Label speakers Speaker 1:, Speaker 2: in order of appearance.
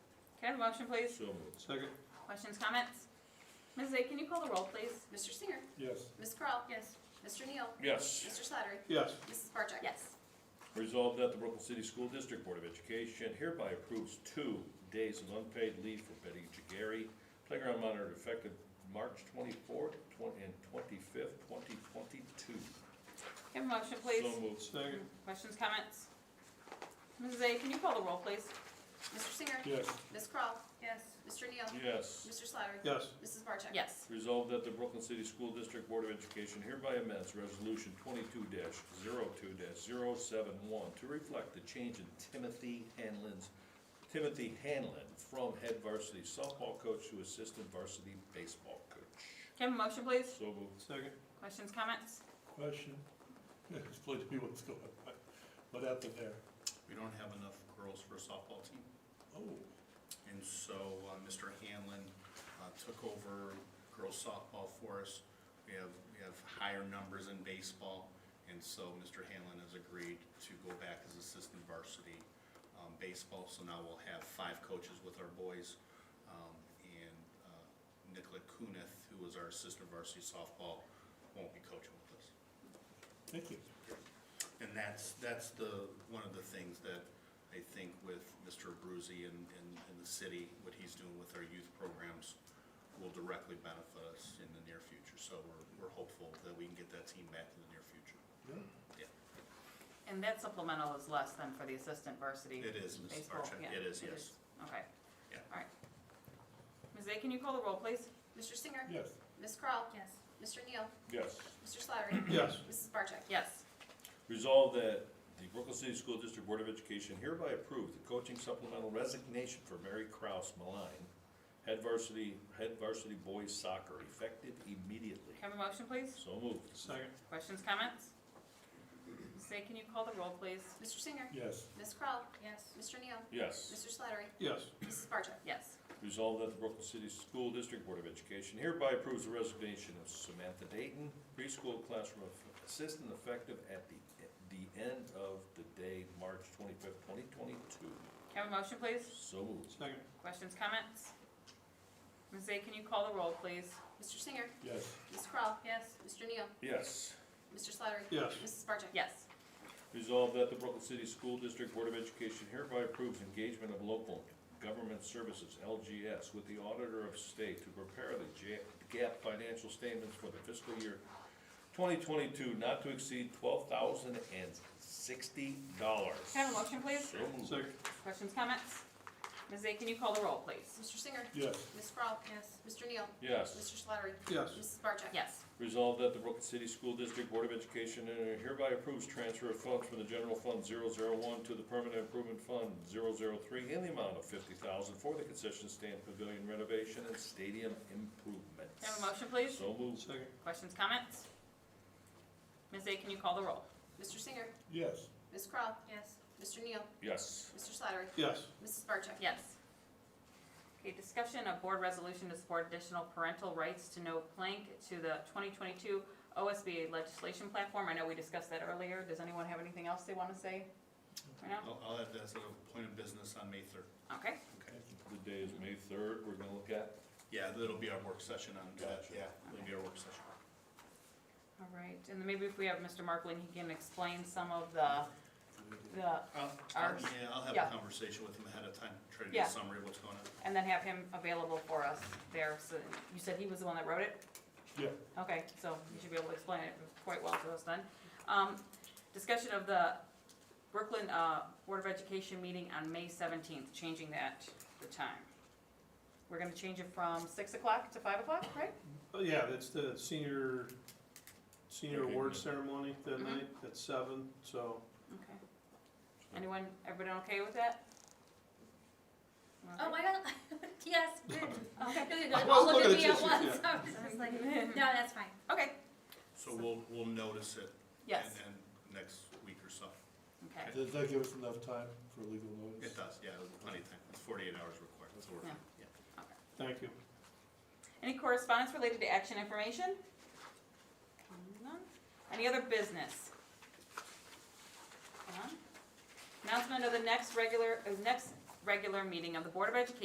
Speaker 1: Can I have a motion, please?
Speaker 2: So moved.
Speaker 3: Second.
Speaker 1: Questions, comments? Mrs. A, can you call the roll, please?
Speaker 4: Mr. Singer.
Speaker 3: Yes.
Speaker 4: Ms. Kroll.
Speaker 1: Yes.
Speaker 4: Mr. Neal.
Speaker 2: Yes.
Speaker 4: Mr. Slattery.
Speaker 3: Yes.
Speaker 4: Mrs. Barcheck.
Speaker 1: Yes.
Speaker 2: Resolved that the Brooklyn City School District Board of Education hereby approves two days of unpaid leave for Betty Jageri, playground monitor effective March twenty-fourth and twenty-fifth, twenty twenty-two.
Speaker 1: Can I have a motion, please?
Speaker 2: So moved.
Speaker 3: Second.
Speaker 1: Questions, comments? Mrs. A, can you call the roll, please?
Speaker 4: Mr. Singer.
Speaker 3: Yes.
Speaker 4: Ms. Kroll.
Speaker 1: Yes.
Speaker 4: Mr. Neal.
Speaker 2: Yes.
Speaker 4: Mr. Slattery.
Speaker 3: Yes.
Speaker 4: Mrs. Barcheck.
Speaker 1: Yes.
Speaker 2: Resolved that the Brooklyn City School District Board of Education hereby amends Resolution twenty-two 2 71 to reflect the change in Timothy Hanlon's, Timothy Hanlon from head varsity softball coach to assistant varsity baseball coach.
Speaker 1: Can I have a motion, please?
Speaker 2: So moved.
Speaker 3: Second.
Speaker 1: Questions, comments?
Speaker 5: Question, explain to me what's going on, what happened there?
Speaker 6: We don't have enough girls for a softball team,
Speaker 5: Oh,
Speaker 6: and so uh, Mr. Hanlon uh, took over girls softball for us. We have, we have higher numbers in baseball, and so Mr. Hanlon has agreed to go back as assistant varsity um, baseball. So now we'll have five coaches with our boys. um, And uh, Nicola Kunith, who was our assistant varsity softball, won't be coaching with us.
Speaker 5: thank you.
Speaker 6: And that's, that's the, one of the things that I think with Mr. Abruzzi and, and, and the city, what he's doing with our youth programs will directly benefit us in the near future. So we're, we're hopeful that we can get that team back in the near future.
Speaker 5: Yeah.
Speaker 1: And that supplemental is less than for the assistant varsity.
Speaker 6: It is, Ms.
Speaker 1: baseball.
Speaker 6: Barcheck.
Speaker 1: Yeah,
Speaker 6: It is, yes.
Speaker 1: Okay.
Speaker 6: Yeah.
Speaker 1: All right. Ms. A, can you call the roll, please?
Speaker 4: Mr. Singer.
Speaker 5: Yes,
Speaker 4: Ms. Kroll.
Speaker 1: Yes.
Speaker 4: Mr. Neal.
Speaker 2: Yes.
Speaker 4: Mr. Slattery.
Speaker 3: Yes.
Speaker 4: Mrs. Barcheck.
Speaker 1: Yes.
Speaker 2: Resolved that the Brooklyn City School District Board of Education hereby approves the coaching supplemental resignation for Mary Kraus Maline, head varsity, head varsity boys soccer, effective immediately.
Speaker 1: Can I have a motion, please?
Speaker 2: So moved.
Speaker 3: Second.
Speaker 1: Questions, comments? Ms. A, can you call the roll, please?
Speaker 4: Mr. Singer.
Speaker 5: yes,
Speaker 4: Ms. Kroll. Yes. Mr. Neal.
Speaker 2: Yes.
Speaker 4: Mr. Slattery.
Speaker 3: Yes.
Speaker 4: Mrs. Barcheck.
Speaker 1: Yes.
Speaker 2: Resolved that the Brooklyn City School District Board of Education hereby approves the resignation of Samantha Dayton, preschool classroom assistant effective at the, the end of the day, March twenty-fifth, twenty twenty-two.
Speaker 1: Can I have a motion, please?
Speaker 2: So moved.
Speaker 3: Second.
Speaker 1: Questions, comments? Ms. A, can you call the roll, please?
Speaker 4: Mr. Singer.
Speaker 5: yes,
Speaker 4: Ms. Kroll.
Speaker 1: Yes.
Speaker 4: Mr. Neal.
Speaker 2: Yes.
Speaker 4: Mr. Slattery.
Speaker 3: Yes.
Speaker 4: Mrs. Barcheck.
Speaker 1: Yes.
Speaker 2: Resolved that the Brooklyn City School District Board of Education hereby approves engagement of local government services, LGS, with the Auditor of State to prepare the J- gap financial statements for the fiscal year twenty twenty-two, not to exceed twelve thousand and sixty dollars.
Speaker 1: Can I have a motion, please?
Speaker 2: So moved.
Speaker 3: Second.
Speaker 1: Questions, comments? Ms. A, can you call the roll, please?
Speaker 4: Mr. Singer.
Speaker 5: yes,
Speaker 4: Ms. Kroll. Yes. Mr. Neal.
Speaker 2: Yes.
Speaker 4: Mr. Slattery.
Speaker 3: Yes.
Speaker 4: Mrs. Barcheck.
Speaker 1: Yes.
Speaker 2: Resolved that the Brooklyn City School District Board of Education uh, hereby approves transfer of funds from the General Fund 001 to the Permanent Improvement Fund 003 in the amount of fifty thousand for the concession stand pavilion renovation and stadium improvements.
Speaker 1: Can I have a motion, please?
Speaker 2: So moved.
Speaker 3: Second.
Speaker 1: Questions, comments? Ms. A, can you call the roll?
Speaker 4: Mr. Singer.
Speaker 5: yes,
Speaker 4: Ms. Kroll. Yes. Mr. Neal.
Speaker 2: Yes.
Speaker 4: Mr. Slattery.
Speaker 3: Yes.
Speaker 4: Mrs. Barcheck.
Speaker 1: Yes. Okay, discussion of board resolution to support additional parental rights to no plank to the 2022 OSBA legislation platform. I know we discussed that earlier. Does anyone have anything else they want to say? Right now?
Speaker 6: I'll, I'll add that as a point of business on May third.
Speaker 1: Okay,
Speaker 6: Okay.
Speaker 5: thank you.
Speaker 2: The day is May third, we're gonna look at.
Speaker 6: Yeah, that'll be our work session on that,
Speaker 2: Gotcha.
Speaker 6: yeah, it'll be our work session.
Speaker 1: all right. And then maybe if we have Mr. Markling, he can explain some of the, the
Speaker 6: I'll, I'll-
Speaker 1: Ours.
Speaker 6: Um, yeah, I'll have
Speaker 1: Yeah.
Speaker 6: a conversation with him ahead of time, try to
Speaker 1: Yeah.
Speaker 6: get a summary of what's going on.
Speaker 1: and then have him available for us there, so, you said he was the one that wrote it?
Speaker 5: yeah,
Speaker 1: Okay, so you should be able to explain it quite well to us then. Um, discussion of the Brooklyn, uh, Board of Education meeting on May seventeenth, changing that, the time. We're gonna change it from six o'clock to five o'clock, right?
Speaker 3: Oh, Yeah, that's the senior, senior
Speaker 2: Okay,
Speaker 3: award
Speaker 2: yeah.
Speaker 3: ceremony that
Speaker 1: Mhm.
Speaker 3: night at seven, so.
Speaker 1: Okay. Anyone, everybody okay with that?
Speaker 7: Oh my god, yes, good.
Speaker 1: Okay.
Speaker 7: No,
Speaker 3: I
Speaker 7: no,
Speaker 3: was
Speaker 7: all look at
Speaker 3: looking at
Speaker 7: me
Speaker 3: you,
Speaker 7: at
Speaker 3: she-
Speaker 7: once.
Speaker 3: yeah.
Speaker 7: I was just like, no, that's fine.
Speaker 1: Okay,
Speaker 6: So we'll, we'll notice it.
Speaker 1: yes,
Speaker 6: And, and next week or so.
Speaker 1: okay.
Speaker 5: does that give us enough time for legal notice?
Speaker 6: It does, yeah, plenty of time, it's forty-eight hours required, so we're,
Speaker 1: Yeah.
Speaker 6: yeah.
Speaker 3: Thank you.
Speaker 1: Any correspondence related to action information? None. Any other business? None. Announcement of the next regular, uh, next regular meeting of the Board of Education